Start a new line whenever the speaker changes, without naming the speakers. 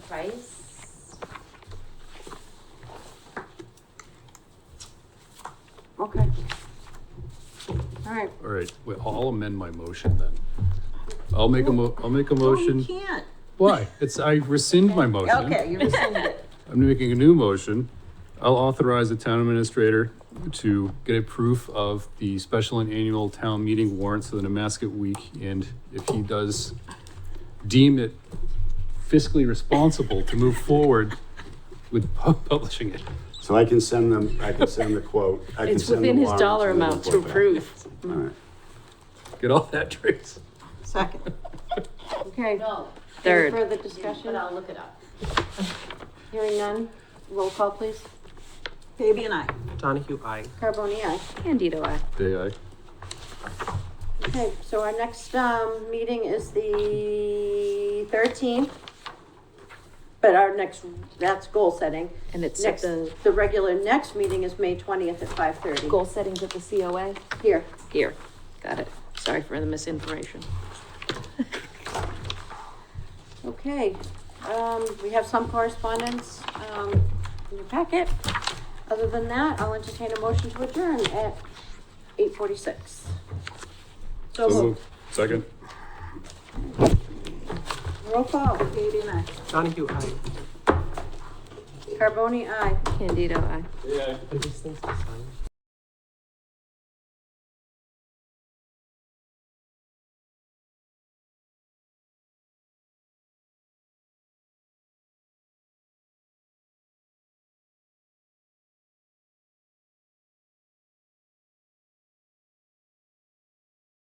price.
Okay. All right.
All right, well, I'll amend my motion then. I'll make a mo, I'll make a
Oh, you
motion.
can't.
Why? It's, I rescind my motion.
Okay, you rescinded it.
I'm making a new motion. I'll authorize the town administrator to get a proof of the special and annual town meeting warrants for the Nemasket Week. And if he does deem it fiscally responsible to move forward with pu- publishing it.
So I can send them, I can send the quote. I can
It's
send the
within his
warrant
dollar
and the
amount to
quote back.
approve.
All right.
Get all that, Trace?
Second. Okay,
No.
any
Third.
further
But
discussion?
I'll look it up.
Hearing none, roll call please. Baby and I.
Donahue, I.
Carboni, aye.
Candido I.
Day I.
Okay, so our next, um, meeting is the thirteenth. But our next, that's goal setting.
And it's at
Next,
the
the regular next meeting is May twentieth at five thirty.
goal settings at the COA.
Here.
Here, got it. Sorry for the misinformation.
Okay, um, we have some correspondence, um, in your packet. Other than that, I'll entertain a motion to adjourn at eight forty-six. So moved.
Second.
Roll call, Baby and I.
Donahue, I.
Carboni, aye.
Candido I.
Are these things to sign?